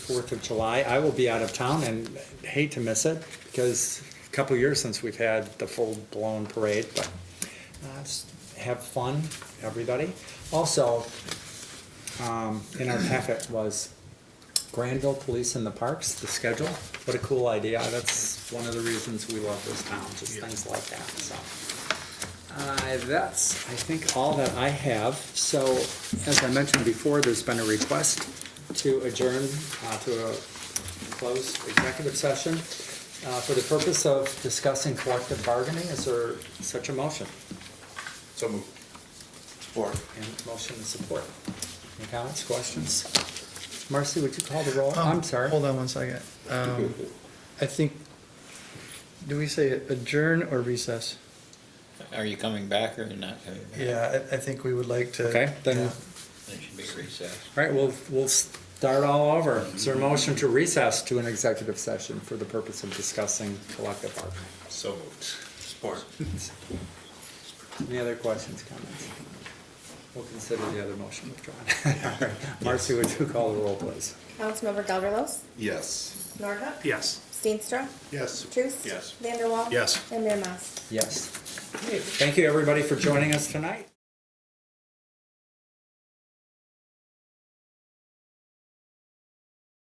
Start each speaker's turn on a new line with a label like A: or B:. A: Fourth of July. I will be out of town and hate to miss it because a couple years since we've had the full-blown parade, but uh, s- have fun, everybody. Also, um, in our packet was Granville Police in the Parks, the schedule. What a cool idea. That's one of the reasons we love this town, just things like that, so. Uh, that's, I think, all that I have. So, as I mentioned before, there's been a request to adjourn uh, to a closed executive session uh, for the purpose of discussing collective bargaining. Is there such a motion?
B: So moved. Support.
A: And motion and support. Any comments, questions? Marcy, would you call the roll? I'm
C: Um,
A: sorry.
C: Hold on one second. Um, I think, do we say adjourn or recess?
D: Are you coming back or you're not coming back?
C: Yeah, I, I think we would like to.
A: Okay, then,
C: Yeah.
A: all
D: It should be recessed.
A: right, we'll, we'll start all over. Is there a motion to recess to an executive session for the purpose of discussing collective bargaining?
B: So moved. Support.
A: Any other questions, comments? We'll consider the other motion withdrawn. All right. Marcy, would you call the roll, please?
E: Councilmember Gelderlos,
B: Yes.
E: Norhuck,
B: Yes.
E: Steenstra,
B: Yes.
E: Truce.
B: Yes.
E: Vanderwall.
B: Yes.
E: And Mayor Mas.
A: Yes. Thank you, everybody, for joining us tonight.